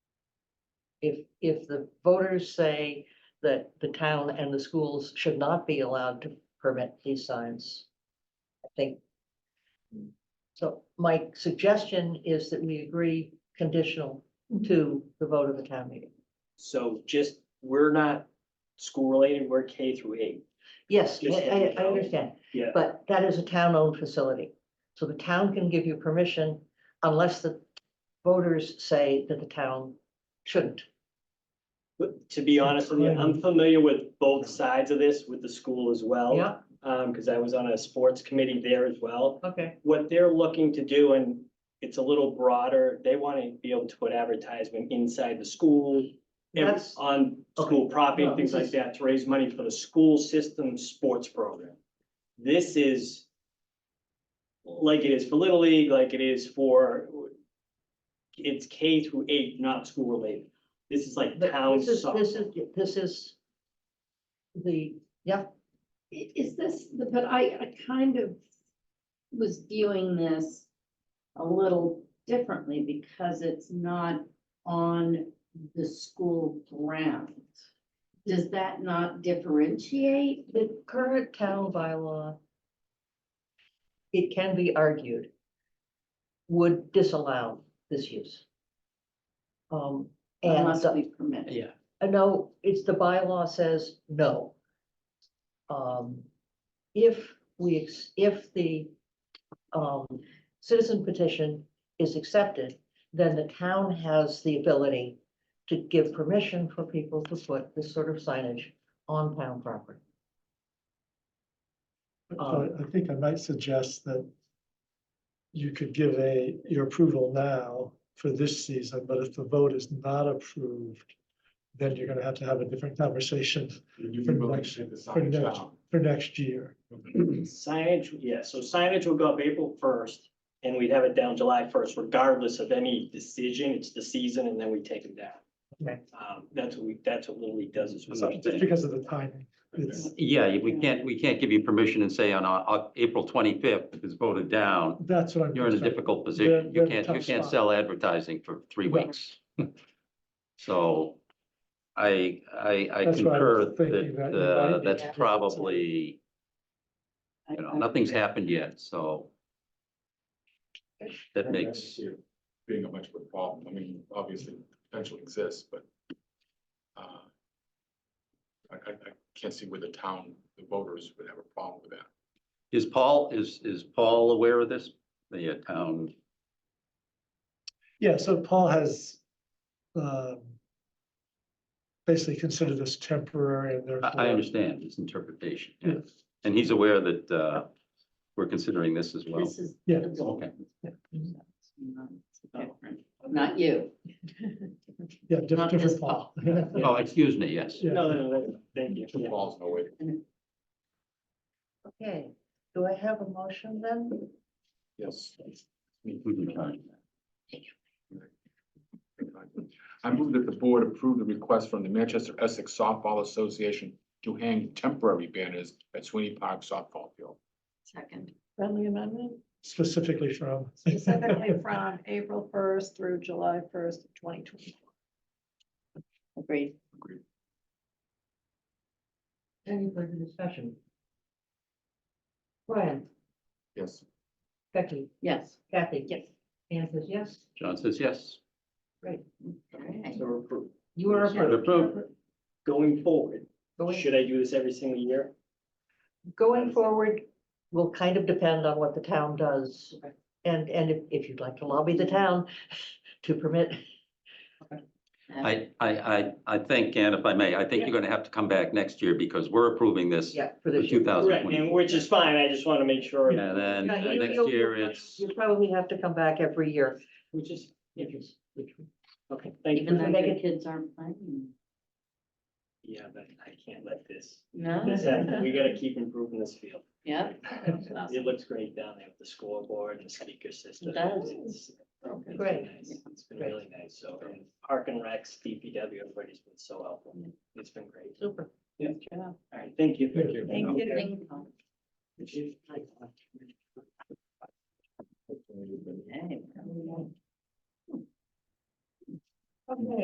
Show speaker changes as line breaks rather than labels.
if, if the voters say that the town and the schools should not be allowed to permit these signs, I think. So my suggestion is that we agree conditional to the vote of the town meeting.
So just, we're not school related, we're K through eight.
Yes,
Just let
I,
it
I
go.
understand,
Yeah.
but that is a town-owned facility. So the town can give you permission unless the voters say that the town shouldn't.
But to be honest with you, I'm familiar with both sides of this with the school as well.
Yeah,
Um, because I was on a sports committee there as well.
okay,
What they're looking to do, and it's a little broader, they want to be able to put advertisement inside the school. and
That's-
On school property and things like that to raise money for the school system sports program. This is like it is for Little League, like it is for it's K through eight, not school related. This is like
But
town
this is,
soccer.
this is, this is the, yeah,
I- Is this, but I, I kind of was viewing this a little differently because it's not on the school ground. Does that not differentiate?
the current town bylaw, it can be argued, would disallow this use. Um, and
Unless
the-
we permit it.
Uh, no, it's the bylaw says no. Um, if we, ex- if the, um, citizen petition is accepted, then the town has the ability to give permission for people to put this sort of signage on town property.
Uh,
I I think I might suggest that you could give a, your approval now for this season, but if the vote is not approved, then you're gonna have to have a different conversation
You
For
can vote
next-
to take the
for
sign
next,
down.
for next year.
Signage, yeah, so signage will go up April first, and we'd have it down July first, regardless of any decision, it's the season, and then we take it down.
Okay.
Um, that's what we, that's what Little League does, is we.
So Just because of the timing, it's,
Yeah, we can't, we can't give you permission and say on, uh, uh, April twenty-fifth is voted down.
that's what I'm.
You're in a
concerned.
difficult
You're-
position.
you're
You
in a
can't,
tough
you can't
spot.
sell advertising for three
Right.
weeks. So I, I, I
That's what I
concur
was
that,
thinking, that you might
uh,
be
that's
able to-
probably,
I-
you know,
I-
nothing's happened yet, so. That
And I don't
makes,
see it Being a much of a problem, I mean, obviously, potential exists, but. uh, I, I, I can't see where the town, the voters would have a problem with that.
is Paul, is, is Paul aware of this? The uh, town,
Yeah, so Paul has, um, basically considered this temporary and therefore.
I, I understand his interpretation, yeah.
Yes.
And he's aware that, uh, we're considering this as well.
This is.
Yeah.
the goal.
Okay.
Not you.
Yeah, diff-
Not
different
this
Paul.
Oh, excuse me, yes.
Yeah.
No, no, no, thank you.
Two balls, no way.
Okay, do I have a motion then?
Yes.
Thank
I move that the board approve the request from the Manchester Essex Softball Association to hang temporary banners at Sweeney Park softball field.
Second.
friendly amendment
Specifically from.
specifically from April first through July first, twenty twenty.
Agreed.
Any further discussion? Brian,
Yes.
Becky,
Yes.
Kathy?
Yes.
Anne says yes,
John says yes.
Okay.
So approved.
you are approved.
Approved.
Going forward,
Going-
should I do this every single year?
Going forward will kind of depend on what the town does.
Okay.
And, and if, if you'd like to lobby the town to permit,
I, I, I, I think, and if I may, I think you're gonna have to come back next year because we're approving this
yeah, for
for
this year.
two thousand
Correct, and
twenty.
which is fine, I just want to make sure,
And then
Yeah,
uh,
you-
next
you'll-
year
you'll-
it's,
You probably have to come back every year.
which is,
if you- if you-
okay, thank
Even
you.
though your kids aren't playing.
Yeah, but I can't let this,
No,
this happen, we gotta keep improving this field.
yeah.
It looks great down there with the scoreboard and the speaker system.
It does.
It's- it's been
Great.
nice. It's been
Great.
really nice, so, and Park and Rex, DPW, everybody's been so helpful, it's been great.
Super.
Good job.
All right, thank you.
Thank you. Thank
you.
Thank you. Hey.
Okay.